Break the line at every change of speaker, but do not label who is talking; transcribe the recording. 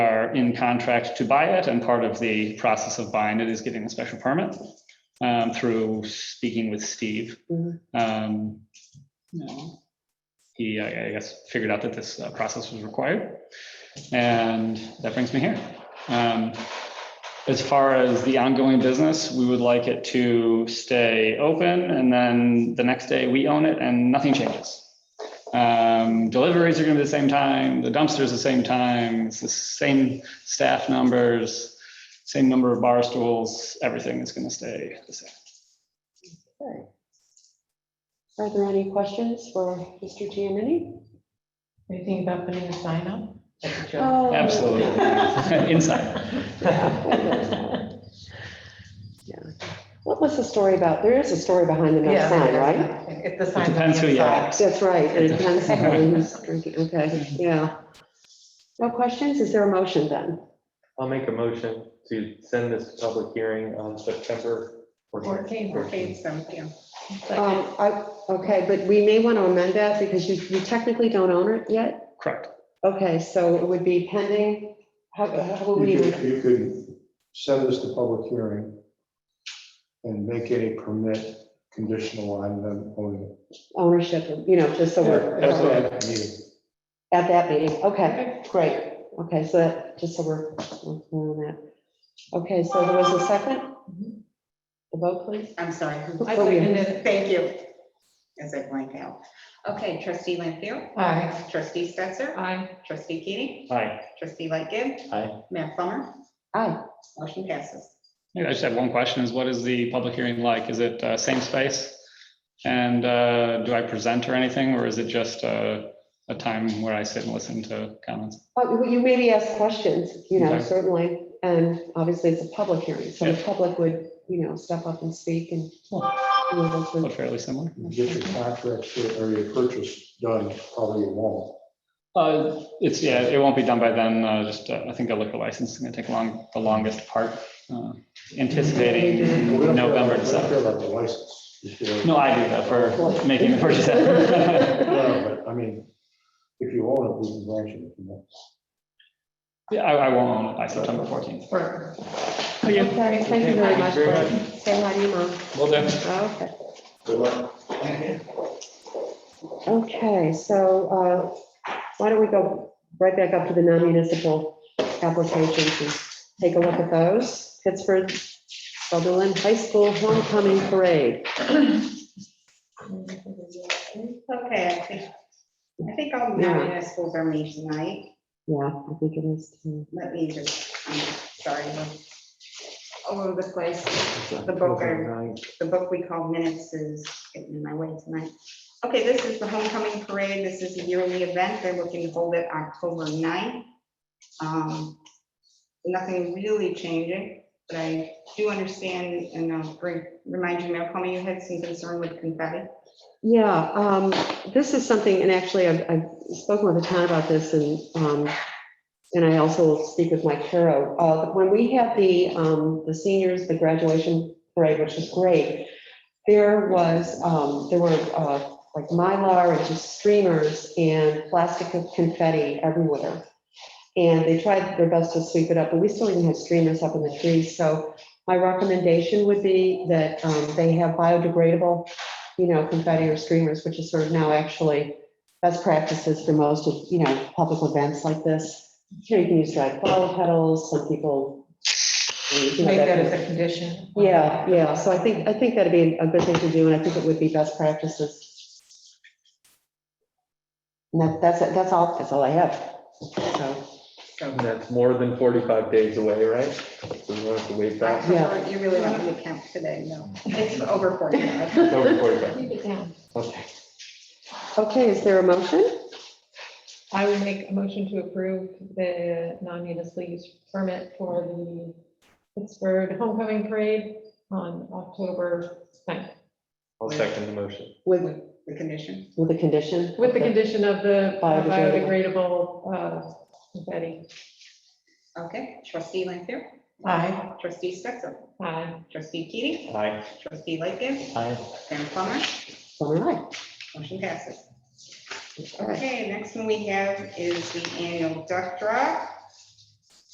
are in contract to buy it, and part of the process of buying it is getting a special permit um, through speaking with Steve.
Mhm.
Um, He, I I guess, figured out that this uh, process was required. And that brings me here. Um, As far as the ongoing business, we would like it to stay open, and then the next day we own it and nothing changes. Um, deliveries are gonna be the same time, the dumpster's the same time, it's the same staff numbers, same number of bar stools, everything is gonna stay the same.
Okay. Are there any questions for Mr. Giannini?
Anything about putting a sign up? That's a joke.
Oh,
Absolutely. Inside.
What was the story about? There is a story behind the no sign, right?
If the
It
sign.
depends who you ask.
That's right. It depends on who's drinking. Okay, yeah. No questions? Is there a motion then?
I'll make a motion to send this to public hearing on September. 14th.
Fourteen, fourteen, seventeen.
Um, I, okay, but we may want to amend that because you, you technically don't own it yet.
Correct.
Okay, so it would be pending, how, how would
You
we?
could, you could send this to public hearing and make any permit conditional on them owning.
ownership, you know, just so we're.
it. That's what I mean.
At that meeting, okay, great, okay, so that, just so we're, we're clear on that. Okay, so there was a second?
Mhm.
The vote, please?
I'm sorry.
I seconded
Thank you. As I blank out. Okay, trustee Lampier,
Aye.
trustee Stetser,
Aye.
trustee Keating,
Aye.
trustee Lightgib,
Aye.
Mayor Plummer,
Aye,
motion passes.
Yeah, I just have one question is what is the public hearing like? Is it uh, same space? And uh, do I present or anything, or is it just uh, a time where I sit and listen to comments?
Uh, well, you maybe ask questions, you know,
Okay.
certainly, and obviously it's a public hearing, so the
Yeah.
public would, you know, step up and speak and. you know, those
Or
would-
fairly similar?
You Get your contract for- or your purchase done, probably it won't.
Uh, it's, yeah, it won't be done by then, uh, just, uh, I think the liquor license is gonna take long, the longest part, uh,
We don't care
anticipating
about-
November,
We don't care
December.
about the license. You should-
No, I do that for making the purchase. Yeah,
No, But I mean, if you own it, we can grant you the permit.
I, I won't own it by September fourteenth.
Okay, thank you very much, Brett. say hi to your mom,
Will do.
Oh, okay.
Good luck.
Okay, so uh, why don't we go right back up to the non-municipal applications and take a look at those? Pittsburgh Sutherland High School Homecoming Parade.
Okay, I think, I think all the municipals are meeting tonight.
Yeah, I think it is. too.
Let me just, I'm sorry. I'm All over the place. The book, I- the book we call minutes is getting in my way tonight. Okay, this is the homecoming parade. This is a yearly event. They're looking to hold it October 9th. Um, Nothing really changing, but I do understand and I'll bring, remind you, Mayor Plummer, you had some concern with confetti.
Yeah, um, this is something, and actually, I've I've spoken with the town about this, and, um, and I also will speak with Mike Caro. Uh, When we had the, um, the seniors, the graduation parade, which was great, there was, um, there were uh, like Mylar and just streamers and plastic confetti everywhere. And they tried their best to sweep it up, but we still even had streamers up in the trees. So my recommendation would be that um, they have biodegradable you know, confetti or streamers, which is sort of now actually best practices for most of, you know, public events like this. You know, you can use dried flower petals, some people. you know,
Make that
that-
as a condition.
Yeah, yeah, so I think, I think that'd be a good thing to do, and I think it would be best practices. And that, that's, it. that's all, that's all I have, so,
So
That's more than forty-five days away, right? So we won't have to wait that.
Yeah.
you really want me to count today, no. It's over 45.
It's over 45.
Keep it down.
Okay.
okay, is there a motion?
I would make a motion to approve the non-municipal use permit for the Pittsburgh Homecoming Parade on October 9th,
I'll second the motion.
With,
With The condition.
with the condition?
with the condition of the uh,
Biodegradable.
biodegradable uh, confetti.
Okay, trustee Lampier,
Aye.
trustee Stetser,
Aye.
trustee Keating,
Aye.
trustee Lightgib,
Aye.
Mayor Plummer,
All right,
motion passes.
all right.
Okay, next one we have is the annual duck draw.